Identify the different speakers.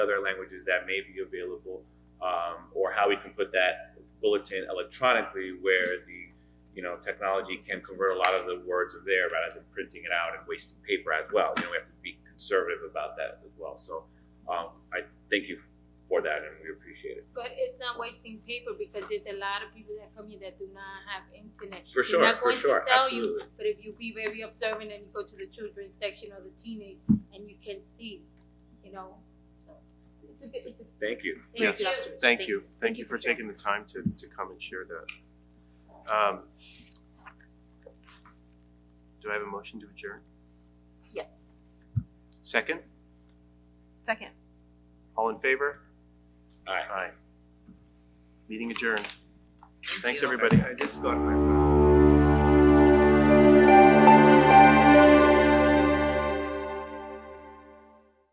Speaker 1: other languages that may be available, um, or how we can put that bulletin electronically where the, you know, technology can convert a lot of the words of there rather than printing it out and wasting paper as well. You know, we have to be conservative about that as well. So, um, I thank you for that and we appreciate it.
Speaker 2: But it's not wasting paper because there's a lot of people that come here that do not have internet.
Speaker 1: For sure,
Speaker 2: They're not
Speaker 1: for
Speaker 2: going
Speaker 1: sure,
Speaker 2: to tell you,
Speaker 1: absolutely.
Speaker 2: but if you be very observant and you go to the children's section or the teenage and you can see, you know, so it's a good, it's a,
Speaker 1: Thank you.
Speaker 2: thank you.
Speaker 3: Yeah. Thank you. Thank you for
Speaker 2: sharing.
Speaker 3: taking the time to, to come and share that. Um, Do I have a motion to adjourn?
Speaker 4: Yes.
Speaker 3: Second?
Speaker 4: Second.
Speaker 3: All in favor?
Speaker 1: All right.
Speaker 3: Aye. Meeting adjourned. Thanks, everybody.
Speaker 5: I just got my.